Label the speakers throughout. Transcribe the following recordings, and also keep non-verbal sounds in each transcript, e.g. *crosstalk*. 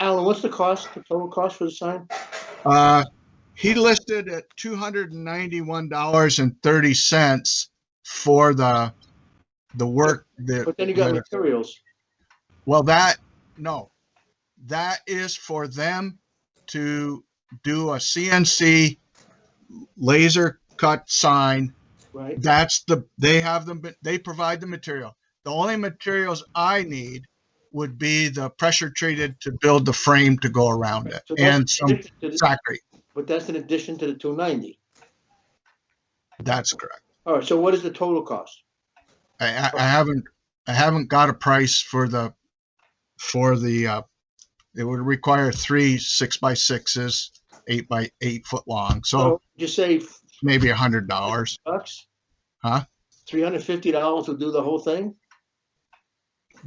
Speaker 1: what's the cost, the total cost for the sign?
Speaker 2: Uh, he listed at two hundred and ninety-one dollars and thirty cents for the, the work that.
Speaker 1: But then you got
Speaker 2: that-
Speaker 1: materials.
Speaker 2: Well, that, no, that is for them to do a CNC laser cut sign.
Speaker 1: Right,
Speaker 2: That's the, they have them, they provide the material. The only materials I need would be the pressure treated to build the frame to go around it
Speaker 1: So that's-
Speaker 2: and some factory.
Speaker 1: but that's in addition to the two ninety.
Speaker 2: That's correct.
Speaker 1: All right, so what is the total cost?
Speaker 2: I, I- I haven't, I haven't got a price for the, for the, uh, it would require three six by sixes, eight by eight foot long, so
Speaker 1: So you say
Speaker 2: maybe a hundred dollars.
Speaker 1: bucks?
Speaker 2: Huh?
Speaker 1: Three hundred fifty dollars will do the whole thing?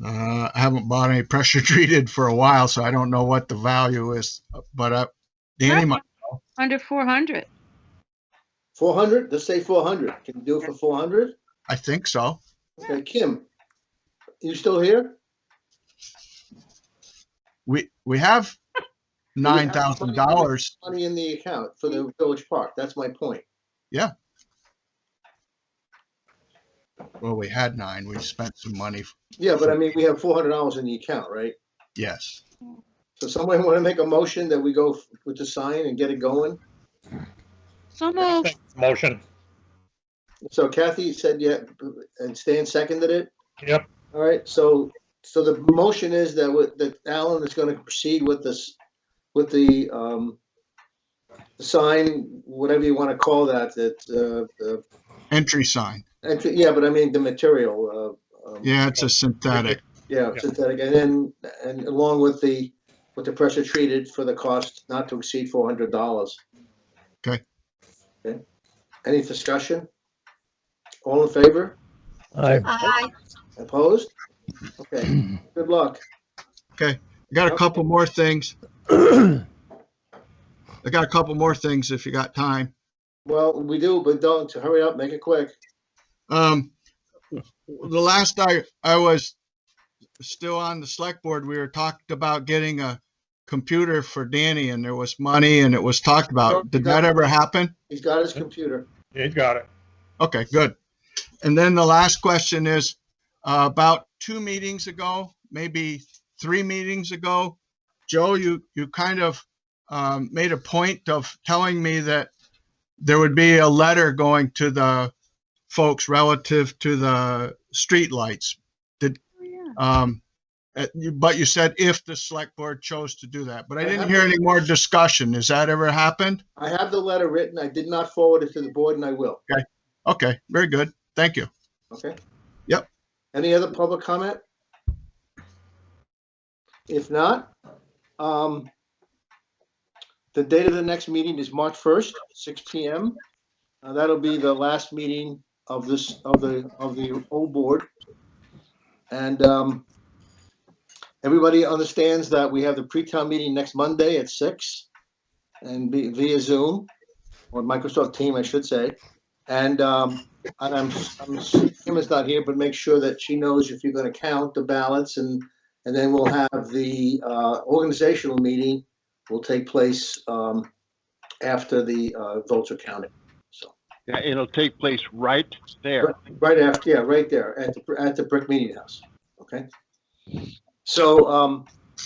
Speaker 2: Uh, I haven't bought any *laughs* pressure treated for a while, so I don't know what the value is, but, uh, Danny, might-
Speaker 3: Under 400.
Speaker 1: Four hundred? Let's say four hundred. Can you do it for four hundred?
Speaker 2: I think so.
Speaker 1: Okay, Kim, you still here?
Speaker 2: We, we have nine thousand dollars.
Speaker 1: Money in the account for the village park. That's my point.
Speaker 2: Well, we had nine, we spent some money,
Speaker 1: Yeah, but I mean, we have four hundred dollars in the account, right?
Speaker 2: yes.
Speaker 1: So somebody want to make a motion that we go f- with the sign and get it going?
Speaker 3: So moved.
Speaker 4: Motion,
Speaker 1: So Kathy said, yeah, and Stan seconded it?
Speaker 4: Yep.
Speaker 1: All right, so, so the motion is that, with- that Alan is going to proceed with this, with the, um, the sign, whatever you want to call that, that, uh, uh,
Speaker 2: Entry sign,
Speaker 1: actually, yeah, but I mean, the material, uh, um,
Speaker 2: yeah, it's a synthetic,
Speaker 1: yeah,
Speaker 4: Yeah.
Speaker 1: synthetic, and then, and along with the, with the pressure treated for the cost not to exceed four hundred dollars.
Speaker 2: Okay.
Speaker 1: Okay, any discussion? All in favor?
Speaker 4: aye,
Speaker 5: Aye.
Speaker 1: Opposed? Okay, good luck.
Speaker 2: got a couple more things. I got a couple more things if you got time.
Speaker 1: Well, we do, but don't, hurry up, make it quick.
Speaker 2: Um, the last I, I was still on the select board, we were talked about getting a computer for Danny and there was money and it was talked about. Did that ever happen?
Speaker 1: He's got his computer.
Speaker 4: he's got it.
Speaker 2: Okay, good. And then the last question is, uh, about two meetings ago, maybe three meetings ago, Joe, you, you kind of, um, made a point of telling me that there would be a letter going to the folks relative to the streetlights.
Speaker 3: Oh, yeah.
Speaker 2: Um, uh, you- but you said if the select board chose to do that, but I didn't hear any more discussion. Has that ever happened?
Speaker 1: I have the letter written. I did not forward it to the board and I will,
Speaker 2: Okay, very good. Thank you.
Speaker 1: okay?
Speaker 2: Yep.
Speaker 1: Any other public comment? If not, um, the date of the next meeting is March 1st, six PM. Uh, that'll be the last meeting of this, of the, of the old board. And, um, everybody understands that we have the pre-town meeting next Monday at six and be- via Zoom or Microsoft Team, I should say. And, um, and I'm, I'm, Emma's not here, but make sure that she knows if you're gonna count the ballots and, and then we'll have the, uh, organizational meeting will take place, um, after the, uh, votes are counted. So,
Speaker 6: Yeah, it'll take place right there.
Speaker 1: right after, yeah, right there at the, at the brick meeting house, okay? So, um,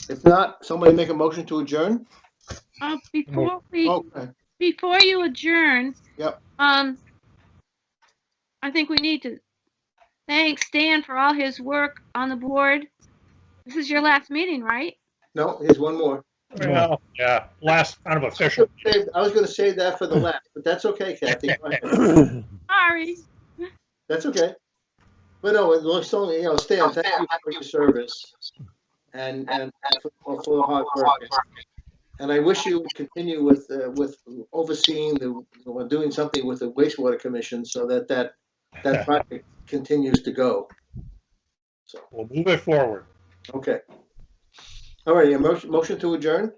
Speaker 1: if not, somebody make a motion to adjourn?
Speaker 3: Uh, before we,
Speaker 1: Oh,
Speaker 3: before you adjourn.
Speaker 1: Yep.
Speaker 3: Um, I think we need to thank Stan for all his work on the board. This is your last meeting, right?
Speaker 1: no, here's one more.
Speaker 4: Well, Yeah, last kind of official.
Speaker 1: I was gonna save that for the last, but that's okay, Kathy. Go ahead.
Speaker 3: Sorry.
Speaker 1: That's okay. But no, it looks only, you know, Stan, thank you for your service and, and for for the hard work. And I wish you would continue with, uh, with overseeing the, or doing something with the wastewater commission so that that, that project continues to go. So,
Speaker 4: We'll move it forward.
Speaker 1: okay. All right, a motion, motion to adjourn?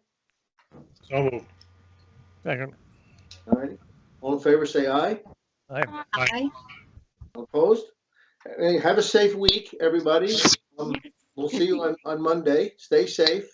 Speaker 4: So moved. Second,
Speaker 1: All right. All in favor, say aye.
Speaker 4: aye, aye.
Speaker 5: Aye.
Speaker 1: Opposed? Hey, have a safe week, everybody. Um, We'll see you on, on Monday. Stay safe.